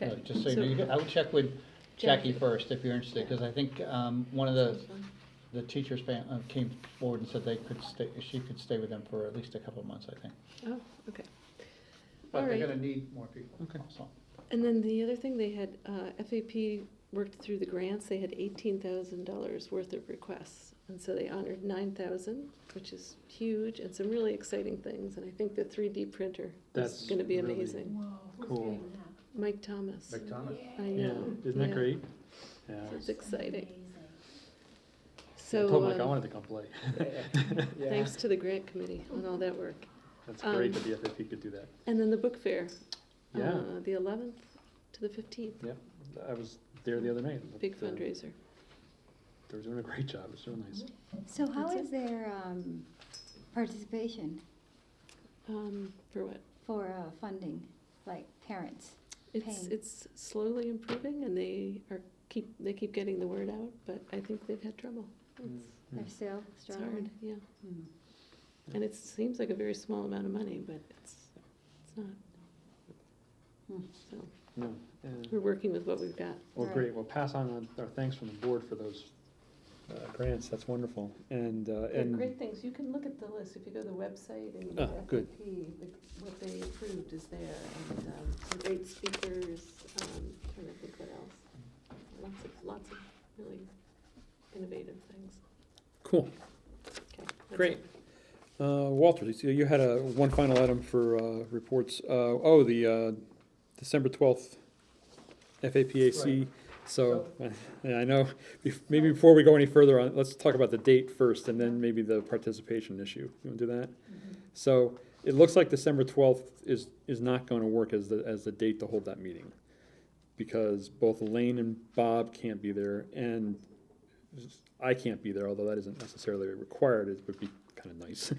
No, Okay. Uh, Just so you know, you could- I would check with Jackie Jackie. first if you're interested, because I think um, one of the, the teachers ban- uh, came forward and said they could stay, she could stay with them for at least a couple of months, I think. Oh, okay. But they're Alright. gonna need more people. Okay. So, And then the other thing, they had, uh, FAP worked through the grants, they had eighteen thousand dollars worth of requests. And so they honored nine thousand, which is huge, and some really exciting things, and I think the three D printer is That's gonna be really- amazing. Cool. Mike Thomas, McDonough? I Yeah, know. isn't that yeah. great? Yeah. It's exciting. I So, told Mike I um, wanted to come play. thanks to the grant committee on all that work. That's great Um, that the FFP could do that. And then the book fair. Yeah. uh, The eleventh to the fifteenth, I was there the other night. but, big uh, fundraiser. They were doing a great job. It was so nice. Mm, So how That's is their um, participation Um, for what? for uh, funding, like parents? It's, Pain. it's slowly improving and they are, keep, they keep getting the word out, but I think they've had trouble. Mm. It's- Hmm. They're still It's hard, struggling? yeah. Hmm. And it seems like a very small amount of money, but it's, it's not. Hmm. So, No. uh, we're working with what we've got. Well, Right. great. Well, pass on uh, our thanks from the board for those uh, grants. That's wonderful. And, uh, and, things. You can look at the list. If you go to the website and Ah, good. what they approved is there and, um, great speakers, um, trying to think what else. Lots of, lots of really innovative things. cool. Okay. Great. Uh, Walter, so you had a, one final item for, uh, reports, uh, oh, the, uh, December twelfth FAPAC. So, yeah, I know, bef- maybe before we go any further on, let's talk about the date first and then maybe the participation issue. You wanna do that? Mm-hmm. So it looks like December twelfth is, is not gonna work as the, as the date to hold that meeting. Because both Elaine and Bob can't be there and I can't be there, although that isn't necessarily required, it would be kind of nice.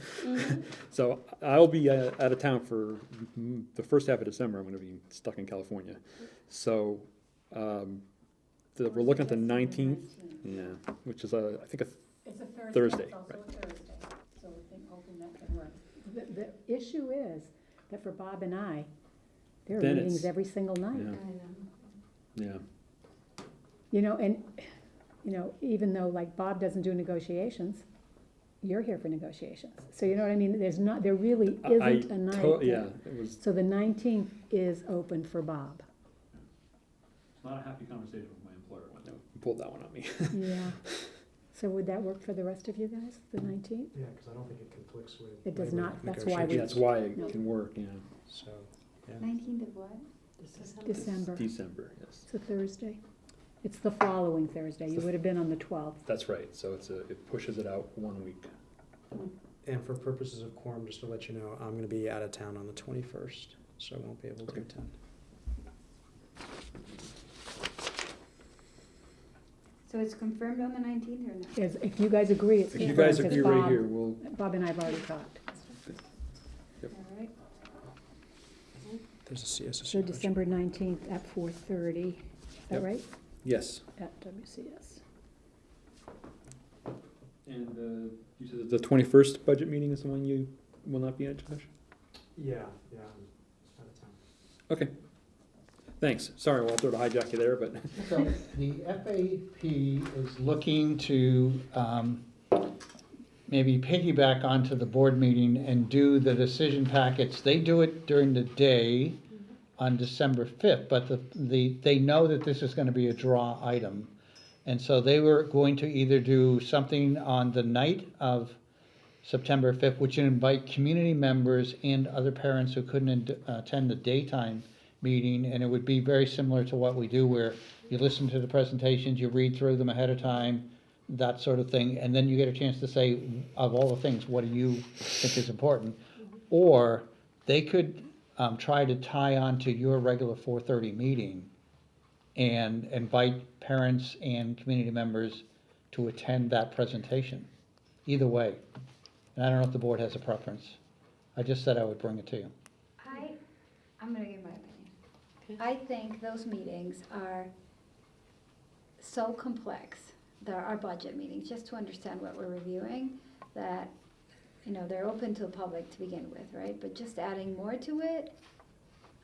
Mm-hmm. So I'll be uh, out of town for mm, the first half of December, I'm gonna be stuck in California. So, um, the, we're looking at the nineteenth, yeah, which is a, I think a It's a Thursday. Thursday, It's also right. a Thursday, so we're think- hoping that can work. The, the issue is that for Bob and I, there are Then meetings it's- every single night. Yeah. Yeah, You know, and, you know, even though like Bob doesn't do negotiations, you're here for negotiations. So you know what I mean? There's not, there really I- I isn't a night. to- that- yeah, it was. So the nineteenth is open for Bob. Not a happy conversation with my employer when they pulled that one on me. Yeah. So would that work for the rest of you guys, the nineteenth? Yeah, because I don't think it conflicts with. It does labor not. That's why Yeah, we- negotiations, That's why No. it can work, yeah, So, Nineteenth of what? December. December, yes, It's a Thursday. It's the following Thursday. You would have been on the twelfth. that's right, so it's a, it pushes it out one week. and for purposes of quorum, just to let you know, I'm gonna be out of town on the twenty-first, so I won't be able to Okay. attend. So it's confirmed on the nineteenth or not? As, if you guys agree, it's If you confirmed, guys 'cause agree right Bob- here, we'll, Bob and I have already talked. Yep. All right. There's a CSSU. So budget. December nineteenth at four thirty, is that Yep. right? yes. At WCS. And uh, you said that the twenty-first budget meeting is the one you will not be at, Josh? Yeah, yeah, I'm out of town. Okay. Thanks. Sorry, Walter, to hijack you there, but So the FAP is looking to um, maybe piggyback onto the board meeting and do the decision packets. They do it during the day on December 5th, but the, the, they know that this is going to be a draw item. And so they were going to either do something on the night of September 5th, which would invite community members and other parents who couldn't ad- attend the daytime meeting, and it would be very similar to what we do where you listen to the presentations, you read through them ahead of time, that sort of thing, and then you get a chance to say, of all the things, what do you think is important? Or they could um, try to tie on to your regular 4:30 meeting and invite parents and community members to attend that presentation. Either way, and I don't know if the board has a preference. I just said I would bring it to you. I, I'm gonna give my Okay. opinion. I think those meetings are so complex, they our budget meetings, just to understand what we're reviewing, that, you know, they're open to the public to begin with, right? But just adding more to it,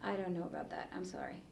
I don't know about that, I'm sorry.